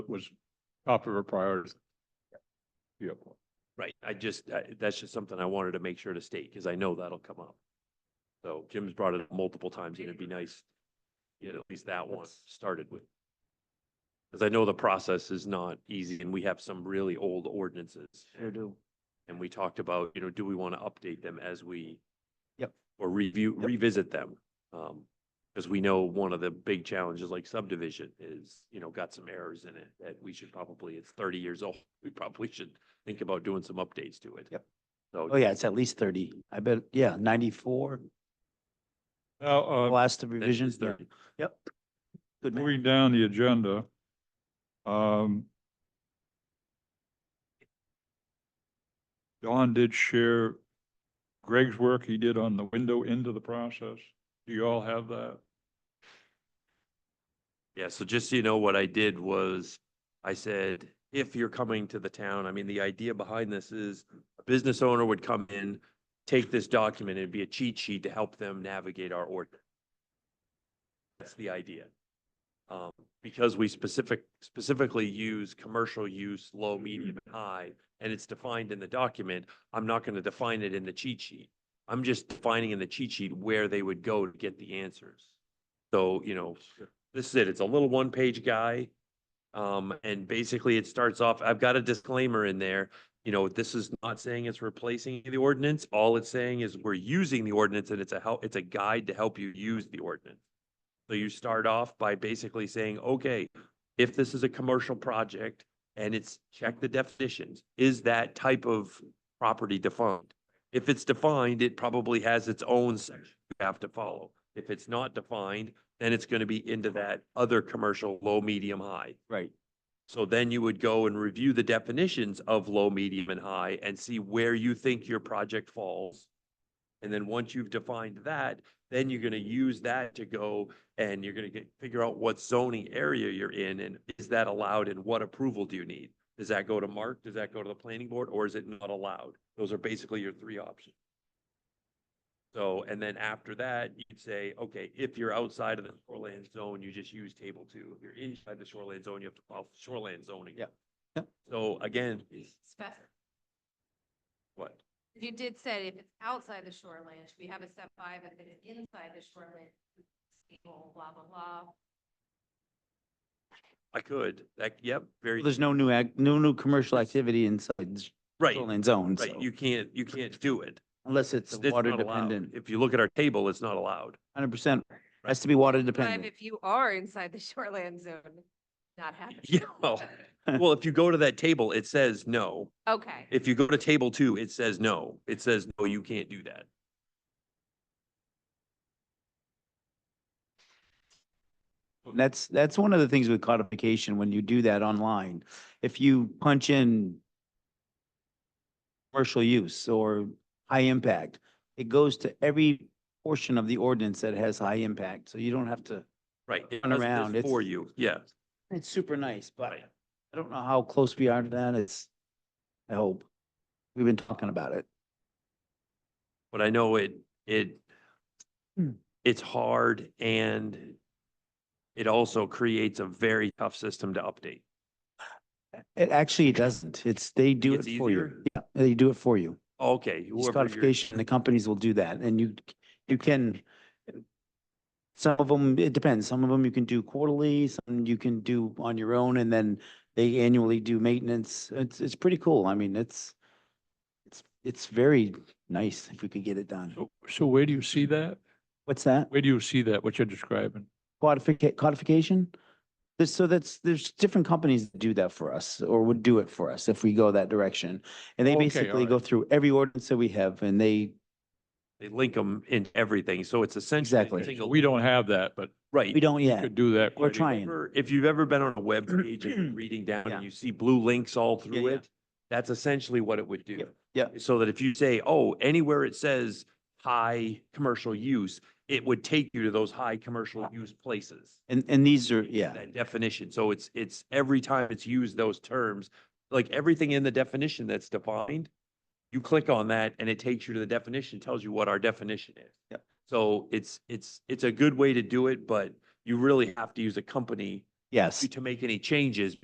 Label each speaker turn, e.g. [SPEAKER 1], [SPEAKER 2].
[SPEAKER 1] was top of our priority. Yep.
[SPEAKER 2] Right, I just, I- that's just something I wanted to make sure to state, because I know that'll come up. So Jim's brought it up multiple times, and it'd be nice, to get at least that one started with. Because I know the process is not easy, and we have some really old ordinances. Sure do. And we talked about, you know, do we want to update them as we?
[SPEAKER 3] Yep.
[SPEAKER 2] Or review,
[SPEAKER 3] Yep.
[SPEAKER 2] revisit them, um, because we know one of the big challenges like subdivision is, you know, got some errors in it that we should probably, it's thirty years old, we probably should think about doing some updates to it.
[SPEAKER 3] Yep. Oh,
[SPEAKER 2] So,
[SPEAKER 3] yeah, it's at least thirty. I bet, yeah, ninety-four,
[SPEAKER 1] Now, uh,
[SPEAKER 3] last
[SPEAKER 2] that
[SPEAKER 3] revisions.
[SPEAKER 2] is thirty.
[SPEAKER 3] Yep. Good man.
[SPEAKER 1] Moving down the agenda. um, Don did share Greg's work he did on the window into the process. Do you all have that?
[SPEAKER 2] Yeah, so just so you know, what I did was, I said, if you're coming to the town, I mean, the idea behind this is a business owner would come in, take this document, it'd be a cheat sheet to help them navigate our ordinance. That's the idea. Um, because we specific, specifically use commercial use, low, medium, and high, and it's defined in the document, I'm not gonna define it in the cheat sheet. I'm just defining in the cheat sheet where they would go to get the answers. So, you know, this is it. It's a little one-page guy. Um, and basically it starts off, I've got a disclaimer in there. You know, this is not saying it's replacing the ordinance. All it's saying is we're using the ordinance and it's a help, it's a guide to help you use the ordinance. So you start off by basically saying, okay, if this is a commercial project and it's, check the definitions, is that type of property defined? If it's defined, it probably has its own section you have to follow. If it's not defined, then it's gonna be into that other commercial, low, medium, high.
[SPEAKER 3] Right.
[SPEAKER 2] So then you would go and review the definitions of low, medium, and high and see where you think your project falls. And then once you've defined that, then you're gonna use that to go and you're gonna get, figure out what zoning area you're in and is that allowed and what approval do you need? Does that go to Mark? Does that go to the planning board or is it not allowed? Those are basically your three options. So, and then after that, you'd say, okay, if you're outside of the shoreland zone, you just use table two. If you're inside the shoreland zone, you have to follow shoreland zoning.
[SPEAKER 3] Yeah. Yeah.
[SPEAKER 2] So again,
[SPEAKER 4] Spec-
[SPEAKER 2] what?
[SPEAKER 4] You did say if it's outside the shoreline, we have a step five, if it's inside the shoreline, stable, blah, blah, blah.
[SPEAKER 2] I could, that, yep, very,
[SPEAKER 3] There's no new act, no new commercial activity inside the
[SPEAKER 2] right,
[SPEAKER 3] shoreline zone, so
[SPEAKER 2] right. You can't, you can't do it.
[SPEAKER 3] unless it's
[SPEAKER 2] It's
[SPEAKER 3] water
[SPEAKER 2] not allowed.
[SPEAKER 3] dependent,
[SPEAKER 2] If you look at our table, it's not allowed.
[SPEAKER 3] hundred percent, has to be water
[SPEAKER 4] Five,
[SPEAKER 3] dependent.
[SPEAKER 4] if you are inside the shoreline zone, not happening.
[SPEAKER 2] Yeah, well, well, if you go to that table, it says no.
[SPEAKER 4] Okay,
[SPEAKER 2] If you go to table two, it says no. It says, no, you can't do that.
[SPEAKER 3] That's, that's one of the things with codification, when you do that online, if you punch in commercial use or high impact, it goes to every portion of the ordinance that has high impact, so you don't have to
[SPEAKER 2] Right. it
[SPEAKER 3] Turn
[SPEAKER 2] does this
[SPEAKER 3] around, it's-
[SPEAKER 2] For you, yeah.
[SPEAKER 3] It's super nice, but
[SPEAKER 2] Right.
[SPEAKER 3] I don't know how close we are to that. It's, I hope. We've been talking about it.
[SPEAKER 2] But I know it, it,
[SPEAKER 3] Hmm.
[SPEAKER 2] it's hard and it also creates a very tough system to update.
[SPEAKER 3] It actually doesn't. It's, they do it
[SPEAKER 2] It's
[SPEAKER 3] for
[SPEAKER 2] easier?
[SPEAKER 3] you. Yeah, they do it for you.
[SPEAKER 2] Okay.
[SPEAKER 3] It's
[SPEAKER 2] whoever you're-
[SPEAKER 3] codification, the companies will do that and you, you can, some of them, it depends. Some of them you can do quarterly, some you can do on your own and then they annually do maintenance. It's, it's pretty cool. I mean, it's, it's, it's very nice if we could get it done.
[SPEAKER 5] So, so where do you see that?
[SPEAKER 3] What's that?
[SPEAKER 5] Where do you see that, what you're describing?
[SPEAKER 3] codification, codification. There's- So that's, there's different companies that do that for us or would do it for us if we go that direction. And they
[SPEAKER 5] Okay,
[SPEAKER 3] basically go
[SPEAKER 5] alright.
[SPEAKER 3] through every ordinance that we have and they,
[SPEAKER 2] They link them in everything. So it's essentially.
[SPEAKER 3] Exactly.
[SPEAKER 2] using a-
[SPEAKER 5] So We don't have that, but
[SPEAKER 2] Right.
[SPEAKER 3] we don't
[SPEAKER 5] we
[SPEAKER 3] yet.
[SPEAKER 5] could do that.
[SPEAKER 3] We're
[SPEAKER 2] If you've
[SPEAKER 3] trying.
[SPEAKER 2] ever- If you've ever been on a web page and you're reading down
[SPEAKER 3] Yeah.
[SPEAKER 2] and you see blue links all through
[SPEAKER 3] yeah.
[SPEAKER 2] it, that's essentially what it would do.
[SPEAKER 3] yeah.
[SPEAKER 2] So that if you say, oh, anywhere it says high commercial use, it would take you to those high commercial use places.
[SPEAKER 3] And, and these are, yeah,
[SPEAKER 2] That definition. So it's, it's every time it's used those terms, like everything in the definition that's defined, you click on that and it takes you to the definition, tells you what our definition is.
[SPEAKER 3] Yep.
[SPEAKER 2] So it's, it's, it's a good way to do it, but you really have to use a company
[SPEAKER 3] yes.
[SPEAKER 2] to make any changes